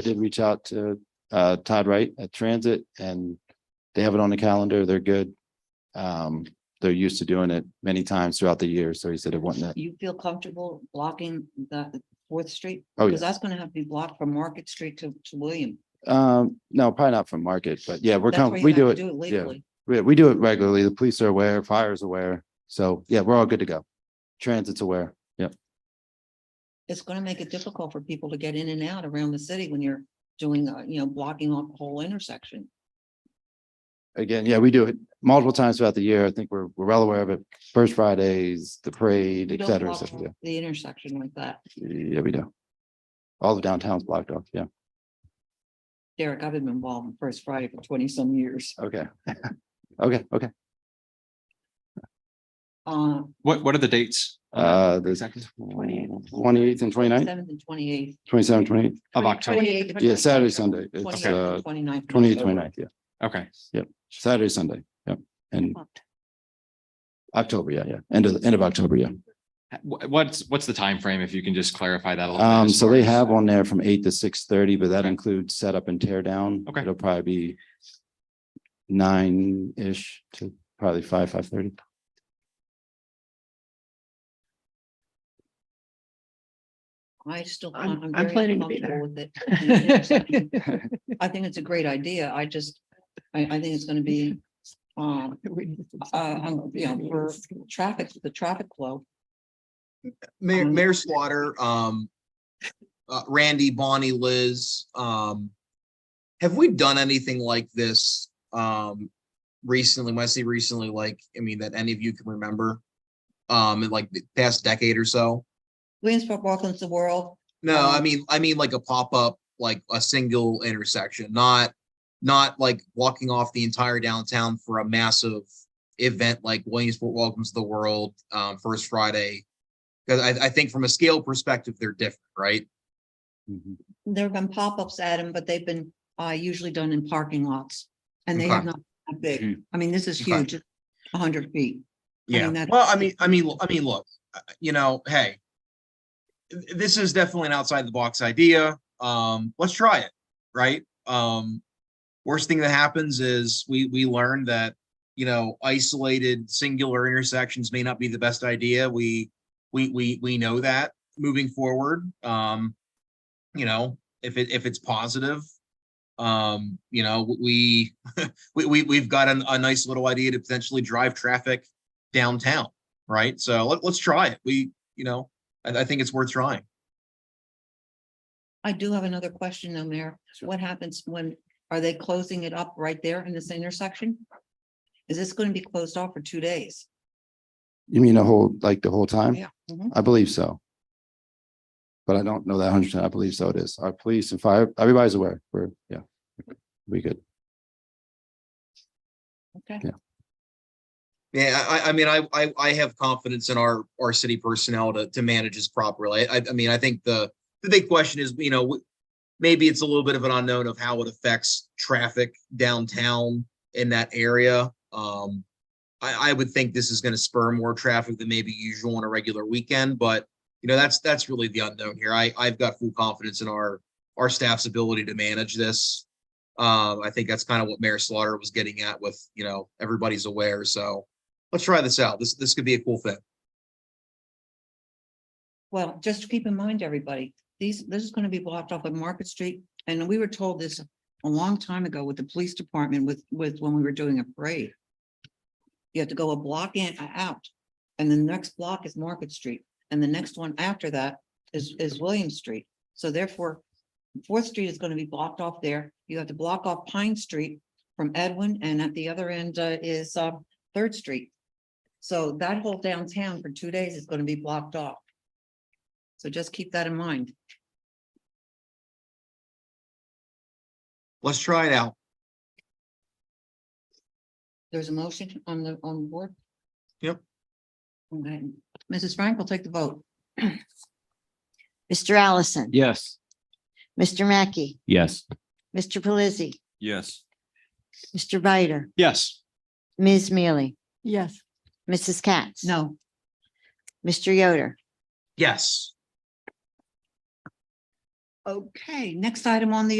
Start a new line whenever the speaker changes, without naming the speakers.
I did reach out to uh Todd Wright at Transit and they have it on the calendar. They're good. Um, they're used to doing it many times throughout the year, so he said it wasn't that.
You feel comfortable blocking the Fourth Street?
Oh,
Because
yeah.
that's gonna have to be blocked from Market Street to, to William.
Um, no, probably not from market, but yeah, we're,
That's
com-
where you
we
have to
do it.
legally.
We, we do it regularly. The police are aware, fire is aware. So yeah, we're all good to go. Transit's aware. Yep.
It's gonna make it difficult for people to get in and out around the city when you're doing, uh, you know, blocking off the whole intersection.
Again, yeah, we do it multiple times throughout the year. I think we're, we're well aware of it. First Fridays, the parade,
You
et
don't
cetera, et
block
cetera.
The intersection like that.
Yeah, we do. All of downtown's blocked off. Yeah.
Derek, I've been involved in First Friday for twenty some years.
Okay. Okay, okay.
Uh,
What, what are the dates? on that
Uh, the
Exactly.
twenty-eighth and twenty-ninth,
seventh and twenty-eighth.
twenty-seven, twenty-eight,
Of October.
yeah, Saturday, Sunday, it's uh,
Twenty-ninth.
twenty-eight, twenty-ninth, yeah,
Okay.
Saturday, Sunday, yeah, and October, yeah, yeah, end of, end of October, yeah.
Wh- What's, what's the time frame? if you can just clarify that a little? bit,
Um,
as
so
far
they
as-
have on there from eight to six thirty, but that
Okay.
includes setup and tear down.
Okay.
It'll probably be nine-ish to probably five, five-thirty.
I still.
I'm-
I'm
I'm
very
planning to be there.
uncomfortable with it. The intersection. I think it's a great idea. I just, I, I think it's gonna be, um, um, yeah, for- traffic, the traffic flow.
Mayor,
Um,
Mayor Slaughter, um, uh, Randy, Bonnie, Liz, um, have we done anything like this, um, recently? When I say recently, like, I mean, that any of you can remember? Um, in like the past decade or so?
Williamsport welcomes the world.
No, I
Um,
mean, I mean like a pop-up, like a single intersection, not, not like walking off the entire downtown for a massive event like Williamsport Welcomes the World, um, First Friday. Because I, I think from a scale perspective, they're different, right?
Mm-hmm.
There have been pop-ups, Adam, but they've been, uh, usually done in parking lots. And they have not been that big. I mean, this is
Okay.
huge, a hundred feet. I mean,
Yeah,
that's-
well, I mean, I mean, I mean, look, uh, you know, hey. th- This is definitely an outside the box idea. Um, let's try it, right? Um. Worst thing that happens is we, we learn that, you know, isolated singular intersections may not be the best idea. We, we, we, we know that moving forward. Um. You know, if it, if it's positive. Um, you know, w- we, we, we, we've got an- a nice little idea to potentially drive traffic downtown, right? So let, let's try it. We, you know, I, I think it's worth trying.
I do have another question though, Mayor.
Sure.
What happens when, are they closing it up right there in this intersection? Is this gonna be closed off for two days?
You mean the whole, like the whole time?
Yeah. Mhm.
I believe so. But I don't know that hundred percent. I believe so it is. Our police and fire, everybody's aware. We're, yeah. We good.
Okay.
Yeah, I, I- I mean, I, I, I have confidence in our, our city personnel to, to manage this properly. I, I mean, I think the, the big question is, you know, w- maybe it's a little bit of an unknown of how it affects traffic downtown in that area. Um, I, I would think this is gonna spur more traffic than maybe usual on a regular weekend, but you know, that's, that's really the unknown here. I, I've got full confidence in our, our staff's ability to manage this. Um, I think that's kind of what Mayor Slaughter was getting at with, you know, everybody's aware, so let's try this out. This, this could be a cool thing.
Well, just keep in mind, everybody, these, this is gonna be blocked off of Market Street, and we were told this a long time ago with the police department with, with, when we were doing a parade. You have to go a block in, uh, out, and the next block is Market Street, and the next one after that is, is William Street. So therefore, Fourth Street is gonna be blocked off there. You have to block off Pine Street from Edwin, and at the other end uh, is, uh, Third Street. So that whole downtown for two days is gonna be blocked off. So just keep that in mind.
Let's try it out.
There's a motion on the, on the board.
Yep.
Okay. Mrs. Frank will take the vote.
Mr. Allison.
Yes.
Mr. Mackey.
Yes.
Mr. Pelisi.
Yes.
Mr. Bider.
Yes.
Ms. Mealy.
Yes,
Mrs. Katz.
No,
Mr. Yoder.
Yes.
Okay, next item on the